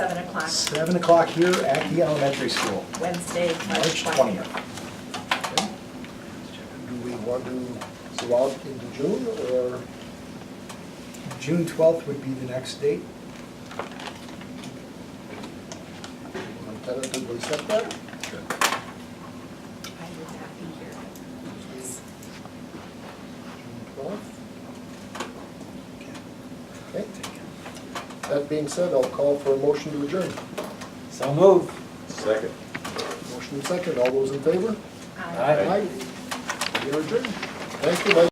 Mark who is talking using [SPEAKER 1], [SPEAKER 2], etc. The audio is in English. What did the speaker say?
[SPEAKER 1] Seven o'clock here at the elementary school,
[SPEAKER 2] Wednesday,
[SPEAKER 1] March
[SPEAKER 2] March
[SPEAKER 1] 20th.
[SPEAKER 2] 20th.
[SPEAKER 3] Do we want to go out into June or
[SPEAKER 1] June 12th would be the next date.
[SPEAKER 3] I'm tentatively set that?
[SPEAKER 2] I would not be here.
[SPEAKER 3] June twelfth? Okay. That being said, I'll call for a motion to adjourn.
[SPEAKER 4] So moved.
[SPEAKER 5] Second.
[SPEAKER 3] Motion second, all those in favor?
[SPEAKER 2] Um,
[SPEAKER 4] Aye.
[SPEAKER 3] We are adjourned. Thank you, Mike.